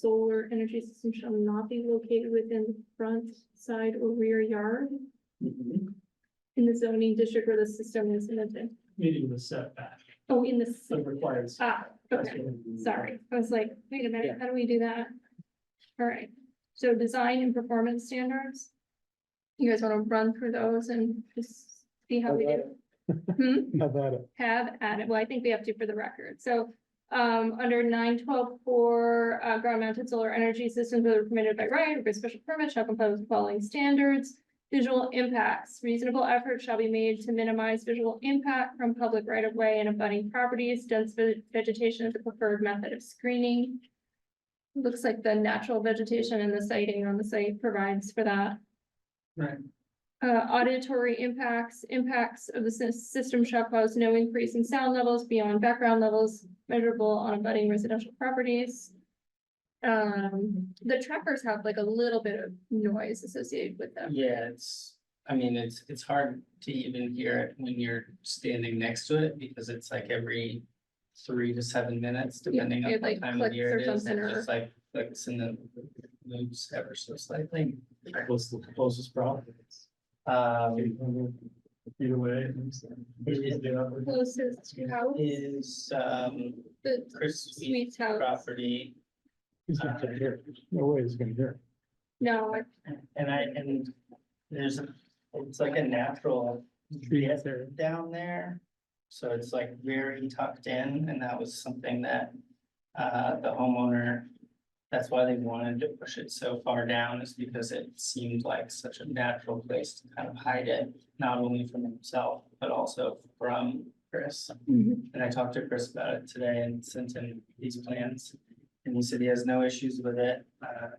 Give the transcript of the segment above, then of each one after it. solar energy system shall not be located within the front, side, or rear yard Meeting in the zoning district where the system is located. the setback, Oh, in the, s- so it requires. ah, okay, sorry, I was like, wait a minute, how do we do that? All right, so design and performance standards. You guys wanna run through those and just see how we do? Hmm? How about it? have added, well, I think we have to for the record, so. Um, under nine twelve four, uh, ground mounted solar energy systems that are permitted by right or by special permit shall comply with the following standards. Visual impacts, reasonable effort shall be made to minimize visual impact from public right of way and abutting properties, dense ve- vegetation is the preferred method of screening. Looks like the natural vegetation and the sighting on the site provides for that. Right. Uh, auditory impacts, impacts of the sys- system shall cause no increase in sound levels beyond background levels measurable on abutting residential properties. Um, the trackers have like a little bit of noise associated with them. Yeah, it's, I mean, it's, it's hard to even hear it when you're standing next to it because it's like every three to seven minutes, depending on it, what like, time of clicks year or it is. something, It or- just like clicks and then moves ever so slightly. What's the closest problem? Um, Either way. it makes sense. Closest to house, is, um, the Chris Sweet sweet house. property. He's not gonna hear it. No way he's gonna hear No, I- And I, and there's, a it's like a natural it. desert down there. So it's like very tucked in and that was something that, uh, the homeowner. That's why they wanted to push it so far down is because it seemed like such a natural place to kind of hide it. Not only from himself, but also from Chris. And I talked to Chris about it today and sent him these plans. And he said he has no issues with it. uh,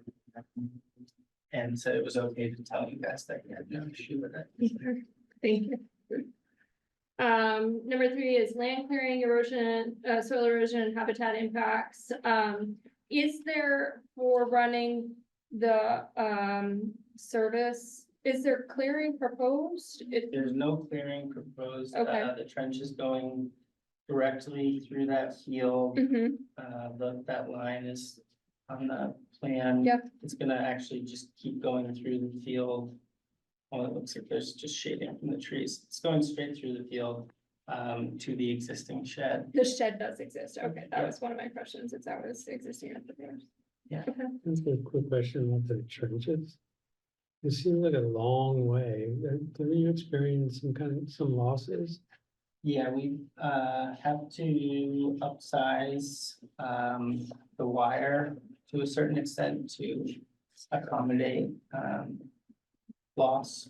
And said it was okay to tell you guys that he had no issue with it. Thank you. Um, number three is land clearing, erosion, uh, soil erosion and habitat impacts. Um, is there for running the, um, service, is there clearing proposed? It, There's no clearing proposed, uh, Okay. the trench is going directly through that field, Mhm, uh, the, that line is on the plan. Yep. It's gonna actually just keep going through the field. Well, it looks like there's just shading from the trees, it's going straight through the field, um, to the existing shed. the shed does exist. Okay, that was one of my questions, if that was existing at the time. That's a quick question about the trenches. It seems like a long way. Didn't you experience some kind of, some losses? Yeah, we, uh, have to upsize, um, the wire to a certain extent to accommodate, um, loss.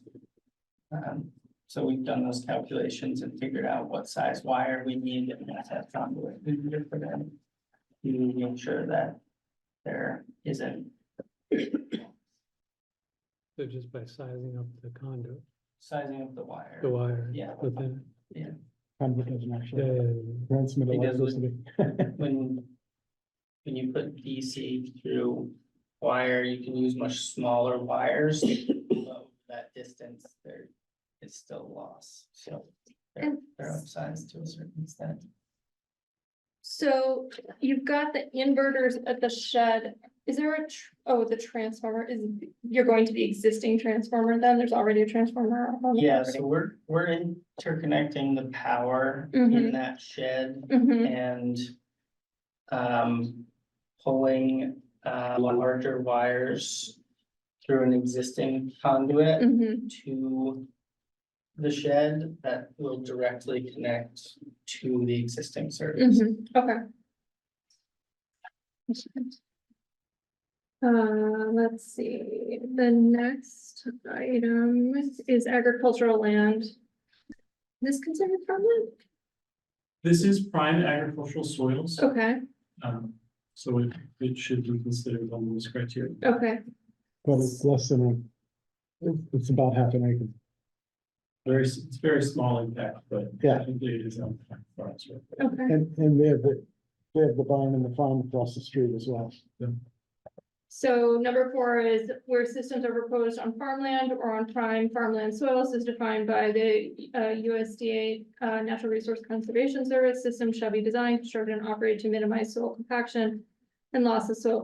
Um, so we've done those calculations and figured out what size wire we need and that's have found what we need for them. To make sure that there isn't So just by sizing up the conduit, sizing of the wire. the wire. Yeah. Within. Yeah. Conduit doesn't actually transmit It doesn't. when, when you put DC through wire, you can use much smaller wires. but That distance, there is still loss, so they're, And- they're upsized to a certain extent. So you've got the inverters at the shed. Is there a, tr- oh, the transformer is, you're going to the existing transformer then? There's already a transformer. on the Yeah, property. so we're, we're interconnecting the power in Mhm. that shed Mhm. and um, pulling uh, larger wires through an existing conduit. Mhm. to the shed that will directly connect to the existing service. Mhm. Okay. Uh, let's see, the next item is agricultural land. This considered farmland? This is prime agricultural soils, Okay, um, so it, it should be considered on this criteria. okay, But it's less than a, it's about half an acre. Very, s- it's very small impact, but. Yeah. I think it is on for us, right? okay. And, and they have the, they have the barn and the farm across the street as well. So number four is where systems are proposed on farmland or on prime farmland soils is defined by the uh, USDA uh, Natural Resource Conservation Service. Systems shall be designed, constructed, and operated to minimize soil compaction and loss of soil